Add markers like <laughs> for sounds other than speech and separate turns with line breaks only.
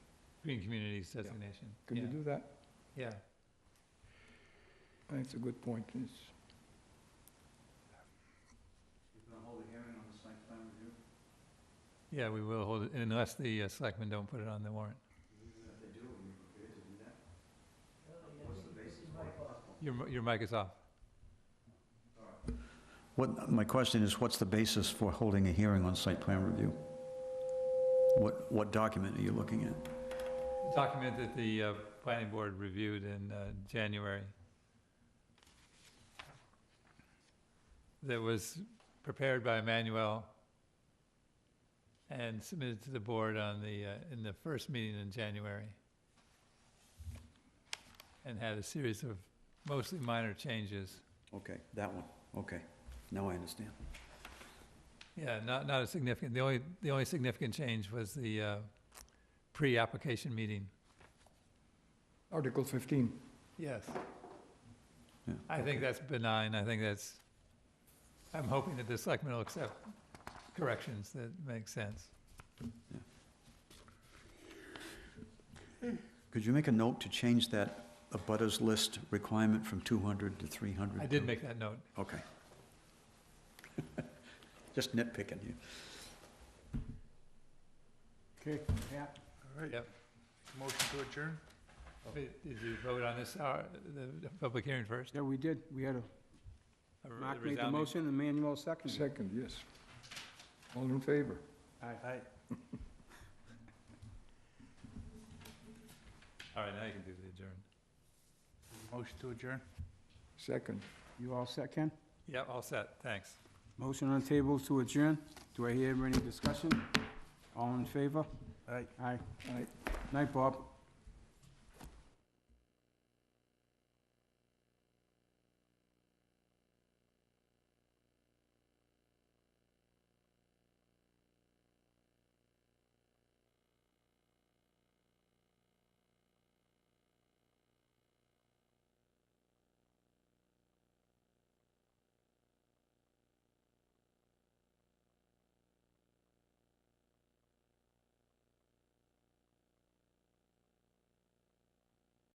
Green Communities designation.
Can you
Yeah.
do that?
Yeah.
That's a good point. It's-
You're gonna hold a hearing on the site plan review?
Yeah, we will hold it unless the uh, selectmen don't put it on the warrant.
If they do, are you prepared to do that? What's the basis for it?
Your, mi- your mic is off.
What, my question is, what's the basis for holding a hearing on site plan review? What, what document are you looking at?
Document that the uh, planning board reviewed in uh, January. That was prepared by Emmanuel and submitted to the board on the, uh, in the first meeting in January. And had a series of mostly minor changes.
Okay, that one, okay. Now I understand.
Yeah, not, not a significant, the only, the only significant change was the uh, pre-application meeting.
Article 15.
Yes.
Yeah,
I think that's benign, I think that's, I'm hoping that the selectmen will accept corrections that make sense.
Could you make a note to change that abutters list requirement from 200 to 300?
I did make that note.
Okay. <laughs> Just nitpicking here.
Okay, Pat?
All right,
Yep.
motion to adjourn?
Did did you vote on this, hour- the the public hearing first?
Yeah, we did. We had a,
A re-
Mark made the
resounding-
motion and Manuel seconded. it.
Second, yes. All in favor?
Aye.
All right, now you can do the adjourn.
Motion to adjourn?
Second.
You all set, Ken?
Yeah, all set, thanks.
Motion on the table to adjourn. Do I hear any discussion? All in favor?
Aye.
Aye.
Aye.
Night, Bob.